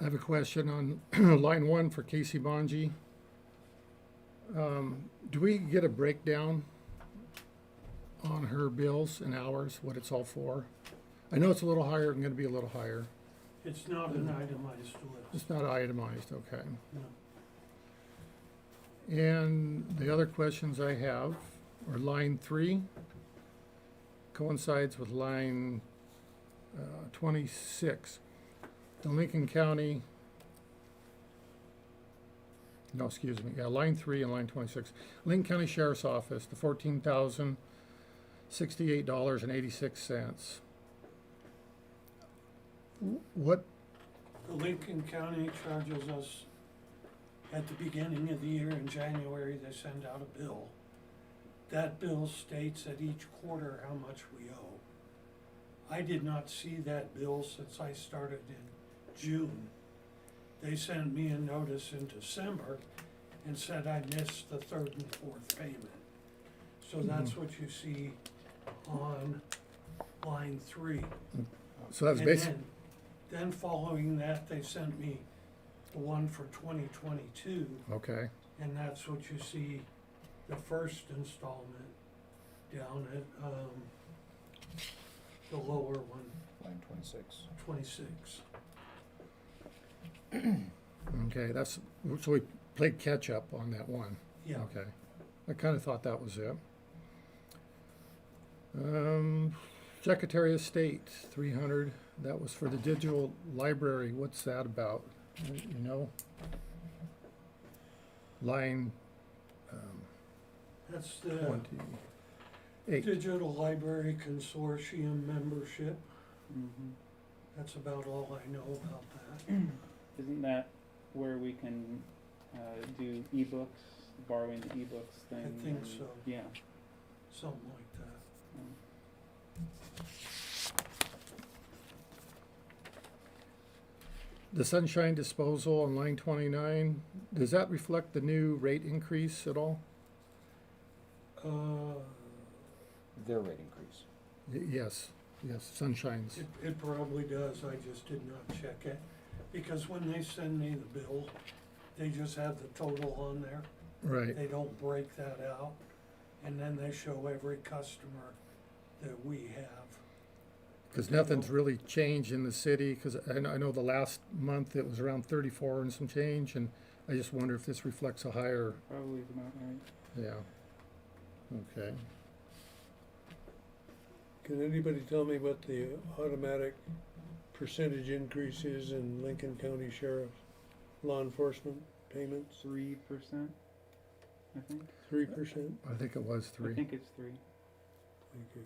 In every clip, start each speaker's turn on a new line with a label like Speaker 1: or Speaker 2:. Speaker 1: have a question on line one for Casey Bonji. Um, Do we get a breakdown on her bills and hours, what it's all for? I know it's a little higher, and gonna be a little higher.
Speaker 2: It's not an itemized list.
Speaker 1: It's not itemized, okay.
Speaker 2: No.
Speaker 1: And the other questions I have are line three coincides with line uh, twenty-six. The Lincoln County, no, excuse me, yeah, line three and line twenty-six. Lincoln County Sheriff's Office, the fourteen thousand sixty-eight dollars and eighty-six cents. What
Speaker 2: The Lincoln County charges us at the beginning of the year in January, they send out a bill. That bill states at each quarter how much we owe. I did not see that bill since I started in June. They sent me a notice in December and said I missed the third and fourth payment. So that's what you see on line three.
Speaker 1: So that's
Speaker 2: And
Speaker 1: basic,
Speaker 2: then, then following that, they sent me the one for twenty twenty-two,
Speaker 1: okay,
Speaker 2: and that's what you see, the first installment down at, um, the lower one,
Speaker 3: Line twenty-six.
Speaker 2: twenty-six.
Speaker 1: okay, that's, so we played catch-up on that one,
Speaker 2: Yeah,
Speaker 1: okay. I kinda thought that was it. Um, Secretary of State, three hundred, that was for the digital library, what's that about, You- you know? Line um,
Speaker 2: that's the
Speaker 1: twenty-eight,
Speaker 2: Digital Library Consortium membership,
Speaker 4: Mhm.
Speaker 2: that's about all I know about that.
Speaker 4: Isn't that where we can uh, do ebooks, borrowing the ebooks
Speaker 2: I
Speaker 4: thing?
Speaker 2: think
Speaker 4: and-
Speaker 2: so.
Speaker 4: Yeah.
Speaker 2: Something like that.
Speaker 4: um,
Speaker 1: the sunshine disposal on line twenty-nine, does that reflect the new rate increase at all?
Speaker 2: Uh,
Speaker 3: Their rate increase.
Speaker 1: Y- Yes, yes, sunshines,
Speaker 2: it, it probably does, I just did not check it, because when they send me the bill, they just have the total on there.
Speaker 1: right.
Speaker 2: They don't break that out, and then they show every customer that we have.
Speaker 1: Because
Speaker 2: Yeah.
Speaker 1: nothing's really changed in the city, because I know, I know the last month it was around thirty-four and some change, and I just wonder if this reflects a higher,
Speaker 4: Probably is about right.
Speaker 1: yeah. Okay,
Speaker 5: Can anybody tell me what the automatic percentage increase is in Lincoln County Sheriff's law enforcement payments?
Speaker 4: Three percent, I think.
Speaker 5: Three percent?
Speaker 1: I think it was
Speaker 4: I
Speaker 1: three.
Speaker 4: think it's three.
Speaker 5: Thank you.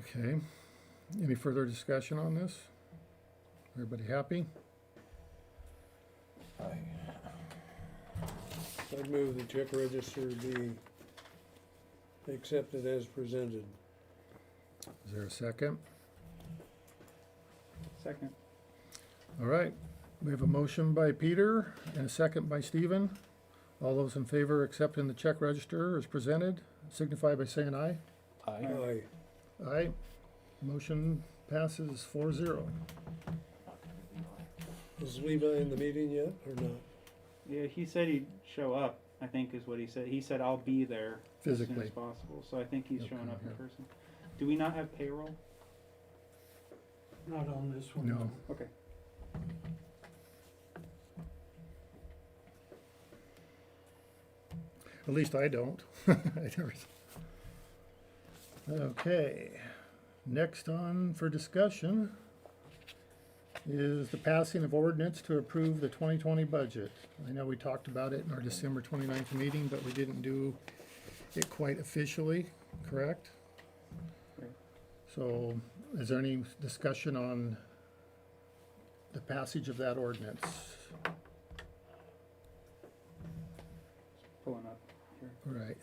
Speaker 1: Okay. Any further discussion on this? Everybody happy?
Speaker 3: Aye.
Speaker 5: I'd move the check register be accepted as presented.
Speaker 1: Is there a second?
Speaker 4: Second.
Speaker 1: All right, we have a motion by Peter and a second by Stephen. All those in favor accepting the check register as presented, signify by saying aye.
Speaker 3: Aye.
Speaker 5: Aye.
Speaker 1: Aye. Motion passes four zero.
Speaker 5: Is Levi in the meeting yet or not?
Speaker 4: Yeah, he said he'd show up. I think is what he said. He said I'll be there as soon
Speaker 1: Physically.
Speaker 4: as possible. So I think he's
Speaker 1: He'll
Speaker 4: showing
Speaker 1: come
Speaker 4: up in
Speaker 1: here.
Speaker 4: person. Do we not have payroll?
Speaker 2: Not on this one.
Speaker 1: No.
Speaker 4: Okay.
Speaker 1: At least I don't. I never- Okay, next on for discussion is the passing of ordinance to approve the twenty twenty budget. I know we talked about it in our December 29th meeting, but we didn't do it quite officially, correct?
Speaker 4: Right.
Speaker 1: So is there any discussion on the passage of that ordinance?
Speaker 4: Pulling up here.
Speaker 1: Right.